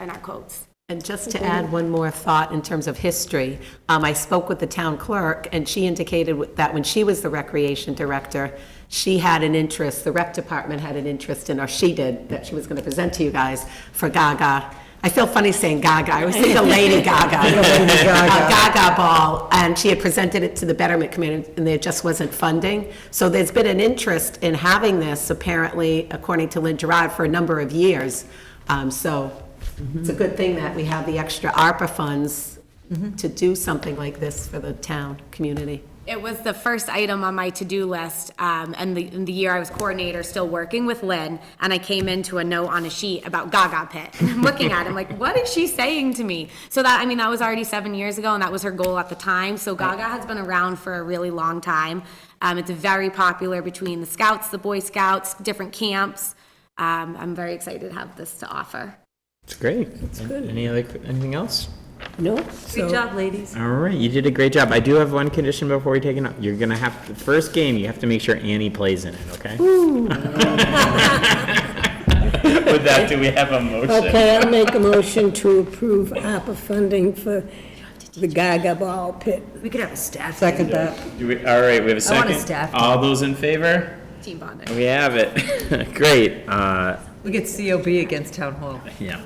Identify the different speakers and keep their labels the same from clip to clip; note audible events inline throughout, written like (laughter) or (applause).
Speaker 1: in our codes.
Speaker 2: And just to add one more thought in terms of history, um, I spoke with the town clerk, and she indicated that when she was the recreation director, she had an interest, the rec department had an interest in, or she did, that she was going to present to you guys for Gaga. I feel funny saying Gaga, I always think of Lady (laughs) Gaga. Uh, Gaga Ball, and she had presented it to the Betterment Committee, and there just wasn't funding. So there's been an interest in having this, apparently, according to Lynn Gerard, for a number of years. Um, So it's a good thing that we have the extra ARPA funds to do something like this for the town, community.
Speaker 1: It was the first item on my to-do list, um, and the, and the year I was coordinator, still working with Lynn, and I came into a note on a sheet about Gaga Pit. (laughs) And I'm looking at it, I'm like, what is she saying to me? So that, I mean, that was already seven years ago, and that was her goal at the time, so Gaga has been around for a really long time. Um, it's very popular between the Scouts, the Boy Scouts, different camps. Um, I'm very excited to have this to offer.
Speaker 3: It's great. It's good. Any other, anything else?
Speaker 1: Good job, ladies.
Speaker 3: All right, you did a great job. I do have one condition before we take it. up. You're gonna have, the first game, you have to make sure Annie plays in it, okay? (laughs) With that, do we have a motion?
Speaker 4: Okay, I'll make a motion to approve ARPA funding for the Gaga Ball Pit.
Speaker 5: We could have a staff.
Speaker 4: Second that.
Speaker 3: Do we, all right, we have a
Speaker 5: I want a
Speaker 3: second.
Speaker 5: staff
Speaker 3: All those in favor?
Speaker 1: Team bonding.
Speaker 3: We have it. (laughs) Great, uh,
Speaker 5: We get COB against town hall.
Speaker 3: Yeah.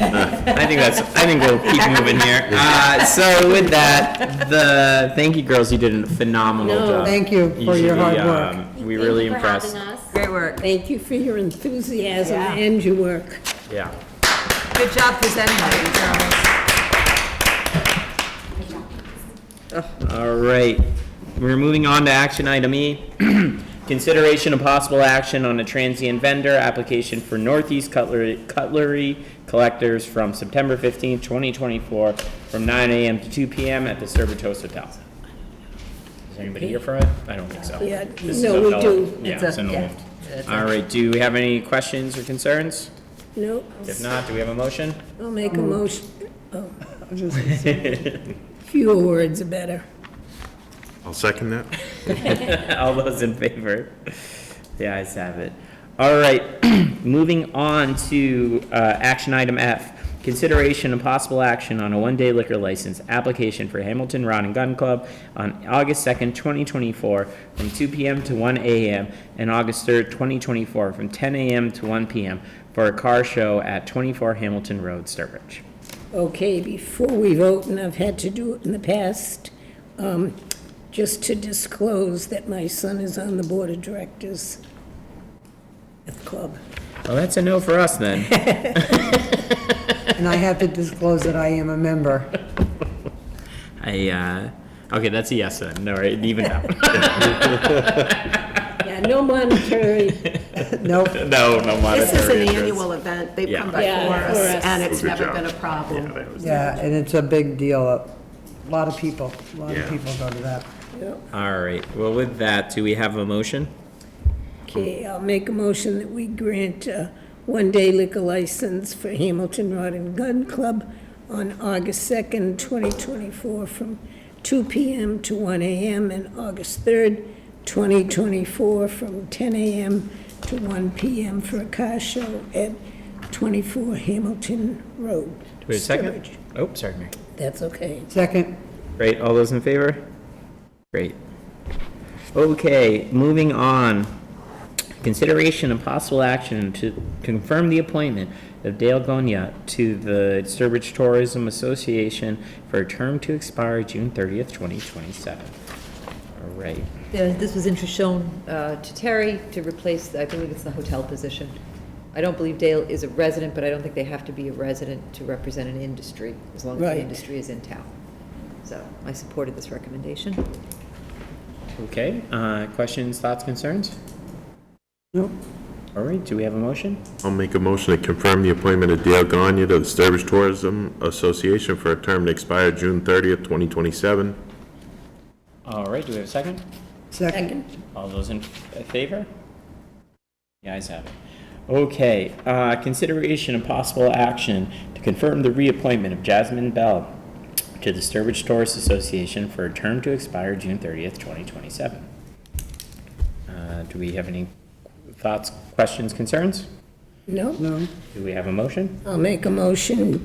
Speaker 3: Uh, I think that's, I think we'll keep moving here. Uh, so with that, the, thank you girls, you did a phenomenal job.
Speaker 4: thank you for your
Speaker 3: Usually,
Speaker 4: hard work.
Speaker 3: um, We really impressed.
Speaker 5: Great work.
Speaker 4: Thank you for your enthusiasm and your work.
Speaker 3: Yeah.
Speaker 5: Good job presenting, girls.
Speaker 3: All right, we're moving on to action item E. (clears throat) Consideration of possible action on a transient vendor application for Northeast Cutlery, Cutlery Collectors from September fifteenth, twenty twenty-four, from nine AM to two PM at the Servitos Hotel. Is anybody here for it? I don't think so.
Speaker 4: Yeah,
Speaker 3: This is
Speaker 4: no,
Speaker 3: a
Speaker 4: we
Speaker 3: fellow-
Speaker 4: do.
Speaker 3: Yeah,
Speaker 5: a-
Speaker 3: it's an
Speaker 5: yeah,
Speaker 3: old. All right, do we have any questions or concerns?
Speaker 4: No,
Speaker 3: If not, do we have a motion?
Speaker 4: I'll make a
Speaker 5: Mm.
Speaker 4: motion. oh, (laughs) Fewer words are better.
Speaker 6: I'll second that.
Speaker 3: (laughs) All those in favor? The ayes have it. All right, (clears throat) moving on to uh, action item F. Consideration and possible action on a one-day liquor license application for Hamilton Rod and Gun Club on August 2nd, 2024, from 2 PM to 1 AM, and August 3rd, 2024, from 10 AM to 1 PM for a car show at 24 Hamilton Road, Sturbridge.
Speaker 4: Okay, before we vote, and I've had to do it in the past, um, just to disclose that my son is on the board of directors at the club.
Speaker 3: Well, that's a no for us then.
Speaker 7: (laughs) And I have to disclose that I am a member.
Speaker 3: (laughs) I, uh, okay, that's a yes then, all right, even now.
Speaker 4: Yeah, no monetary
Speaker 3: (laughs) (laughs)
Speaker 7: Nope.
Speaker 3: No, no
Speaker 2: This is
Speaker 3: monetary
Speaker 2: an
Speaker 3: interest.
Speaker 2: annual event, they've come
Speaker 3: Yeah.
Speaker 4: Yeah,
Speaker 2: before
Speaker 4: for
Speaker 2: us,
Speaker 4: us.
Speaker 2: and it's
Speaker 6: Good
Speaker 2: never
Speaker 6: job.
Speaker 2: been a problem.
Speaker 7: Yeah, and it's a big deal. A lot of people, a lot
Speaker 6: Yeah.
Speaker 7: of people go to that.
Speaker 3: All right, well, with that, do we have a motion?
Speaker 4: Okay, I'll make a motion that we grant a one-day liquor license for Hamilton Rod and Gun Club on August 2nd, 2024, from 2 p.m. to 1 a.m., and August 3rd, 2024, from 10 a.m. to 1 p.m. for a car show at 24 Hamilton Road.
Speaker 3: Do we have a second?
Speaker 4: Sturbridge.
Speaker 3: Oh, sorry, Mary.
Speaker 4: That's okay.
Speaker 7: Second,
Speaker 3: Great, all those in favor? Great. Okay, moving on. Consideration and possible action to confirm the appointment of Dale Gonya to the Sturbridge Tourism Association for a term to expire June 30th, 2027. All right.
Speaker 5: Yeah, This was intro shown uh, to Terry to replace, I believe it's the hotel position. I don't believe Dale is a resident, but I don't think they have to be a resident to represent an industry, as long as
Speaker 4: Right.
Speaker 5: the industry is in town. So I supported this recommendation.
Speaker 3: Okay, uh, questions, thoughts, concerns?
Speaker 7: Nope.
Speaker 3: All right, do we have a motion?
Speaker 6: I'll make a motion to confirm the appointment of Dale Gagne to the Sturbridge Tourism Association for a term to expire June 30th, 2027.
Speaker 3: All right, do we have a second?
Speaker 7: second.
Speaker 3: All those in f- favor? The ayes have it. Okay, uh, consideration and possible action to confirm the reappointment of Jasmine Bell to the Sturbridge Tourist Association for a term to expire June 30th, 2027. Uh, Do we have any thoughts, questions, concerns?
Speaker 4: No?
Speaker 7: No.
Speaker 3: Do we have a motion?
Speaker 4: I'll make a motion